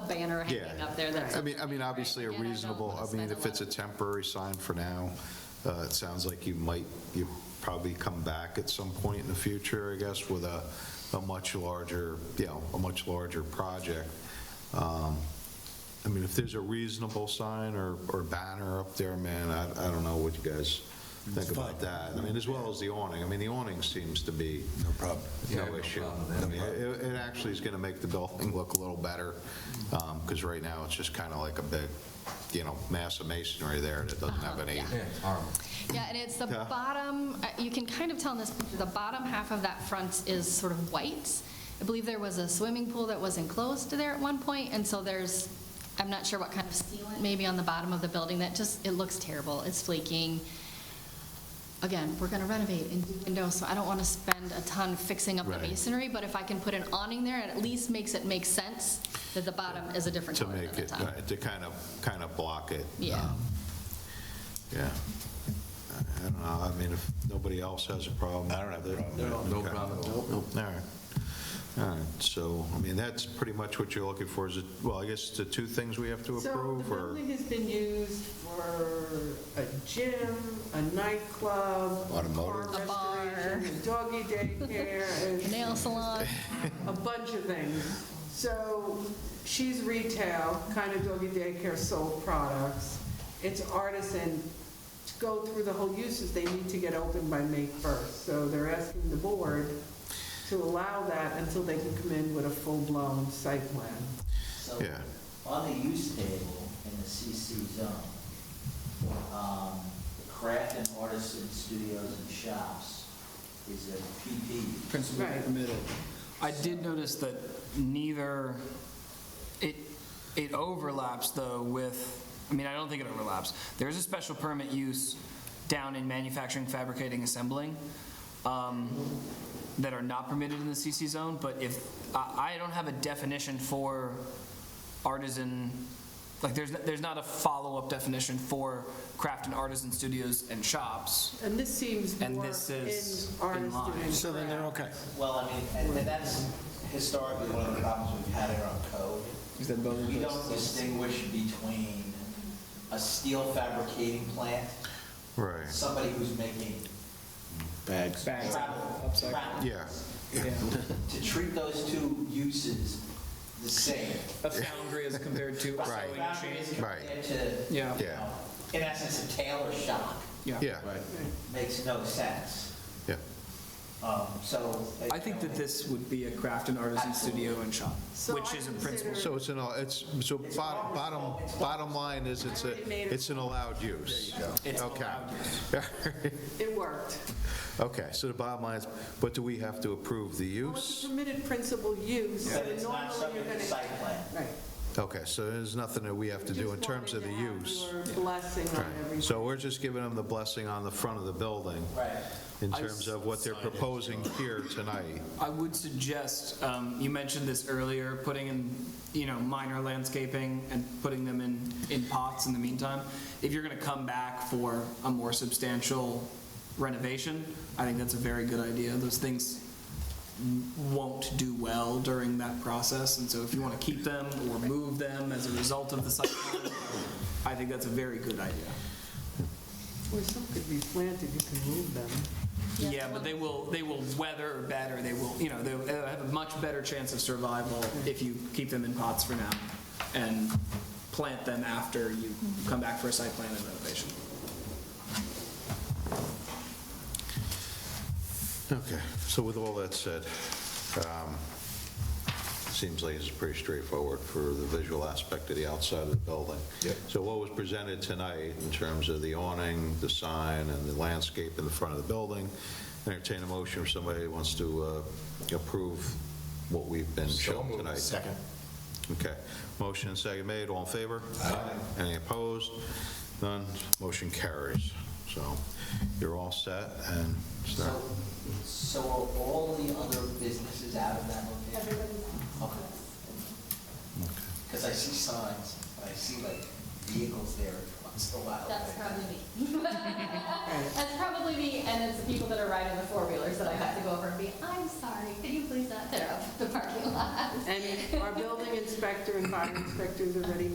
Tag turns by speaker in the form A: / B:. A: banner
B: Yeah.
A: hanging up there that's.
B: I mean, I mean, obviously a
A: Again, I don't
B: reasonable,
A: wanna
B: I mean,
A: spend a
B: if it's a
A: lot of-
B: temporary sign for now, uh, it sounds like you might, you probably come back at some point in the future, I guess, with a, a much larger, you know, a much larger project. Um, I mean, if there's a reasonable sign or, or banner up there, man, I, I don't know what you guys think about that. I mean, as well as the awning. I mean, the awning seems to be
C: No problem.
B: no issue. I mean,
C: problem.
B: It it actually is going to make the building look a little better, because right now, it's just kind of like a big, you know, mass of masonry there that doesn't have any,
A: Uh-huh,
C: Yeah, it's horrible.
A: Yeah, and it's the
B: Yeah.
A: bottom, uh, you can kind of tell in this, picture, the bottom half of that front is sort of white. I believe there was a swimming pool that was enclosed there at one point, and so there's, I'm not sure what kind of sealant maybe on the bottom of the building, that just, it looks terrible, it's flaking. Again, we're gonna renovate and do windows, so I don't wanna spend a ton fixing up the
B: Right.
A: masonry, but if I can put an awning there, it at least makes it make sense that the bottom is a different
B: to
A: color than
B: make
A: the
B: it,
A: top.
B: right, to kind of, kind of block it.
A: Yeah.
B: um, Yeah. I- I don't know, I mean, if nobody else has a problem. I don't have a problem.
C: No problem at all.
B: All right. All right, so, I mean, that's pretty much what you're looking for, is it, well, I guess the two things we have to
D: So the
B: approve, or?
D: building has been used for a gym, a nightclub, a car
B: Automotive.
A: A bar.
D: restoration, a doggy daycare, and
A: Nail salon.
D: a bunch of things. So she's retail, kind of doggy daycare sold products. It's artisan. To go through the whole uses, they need to get open by May 1st. So they're asking the board to allow that until they can come in with a full-blown site plan.
E: So,
B: Yeah.
E: on the use table in the CC zone, um, the craft and artisan studios and shops is a PP.
F: principally
D: Right.
F: permitted. I did notice that neither, it, it overlaps though with, I mean, I don't think it overlaps. There's a special permit use down in manufacturing, fabricating, assembling um, that are not permitted in the CC zone, but if, I, I don't have a definition for artisan, like, there's, there's not a follow-up definition for craft and artisan studios and shops.
D: And this seems
F: And
D: more in
F: this is in
D: artisan
F: line.
D: and
C: So then they're
D: craft.
C: okay.
E: Well, I mean, and and that's historically one of the problems we've had in our code.
F: Is that building?
E: We don't distinguish between a steel fabricating plant,
B: Right.
E: somebody who's making
C: Bags.
F: Bags.
E: travel,
F: Upside-
E: travel.
B: Yeah.
F: Yeah.
E: To treat those two uses the same.
F: a foundry as compared to a
B: Right.
F: sewing machine.
B: Right.
E: Compared to,
F: Yeah.
E: you know, in essence, a tailor shop
B: Yeah,
C: Right.
E: makes no sense.
B: yeah.
E: Um, So.
F: I think that this would be a craft and artisan studio and shop,
D: So
F: which
D: I
F: is in principle.
D: consider-
B: So it's an, al- it's, so bottom, bottom, bottom line is it's a, it's an allowed use.
F: It's
B: Okay.
F: allowed use.
D: It worked.
B: Okay, so the bottom line is, but do we have to approve the
D: Well, it's a
B: use?
D: permitted principal use, so
E: But it's not
D: normally you're
E: subject
D: going
E: to
D: to.
E: site plan.
D: Right.
B: Okay, so there's nothing that we have to do in terms of the use.
D: Just wanted to have your Blessing on
B: Right.
D: everything.
B: So we're just giving them the blessing on the front of the building
E: Right.
B: in terms of what they're proposing here tonight.
F: I would suggest, um, you mentioned this earlier, putting in, you know, minor landscaping and putting them in, in pots in the meantime. If you're gonna come back for a more substantial renovation, I think that's a very good idea. Those things won't do well during that process, and so if you wanna keep them or move them as a result of the site plan, I think that's a very good idea.
D: Where some could be planted, you can move them.
F: Yeah, but they will, they will weather better, they will, you know, they'll they'll have a much better chance of survival if you keep them in pots for now and plant them after you come back for a site plan and renovation.
B: Okay, so with all that said, um, seems like it's pretty straightforward for the visual aspect of the outside of the building.
C: Yep.
B: So what was presented tonight in terms of the awning, the sign, and the landscape in the front of the building, entertain a motion if somebody wants to uh, approve what we've been shown tonight.
C: Second.
B: Okay, motion and second made, all in favor? Aye. Any opposed? None, motion carries. So you're all set and start.
E: So, so are all the other businesses out of that location? Okay. Because I see signs, and I see like vehicles there. It's the wild
A: That's
E: thing.
A: probably me. That's probably me, and it's the people that are riding the four-wheelers that I have to go over and be, I'm sorry, could you please not tear up the parking lot?
D: And our building inspector and fire inspectors are ready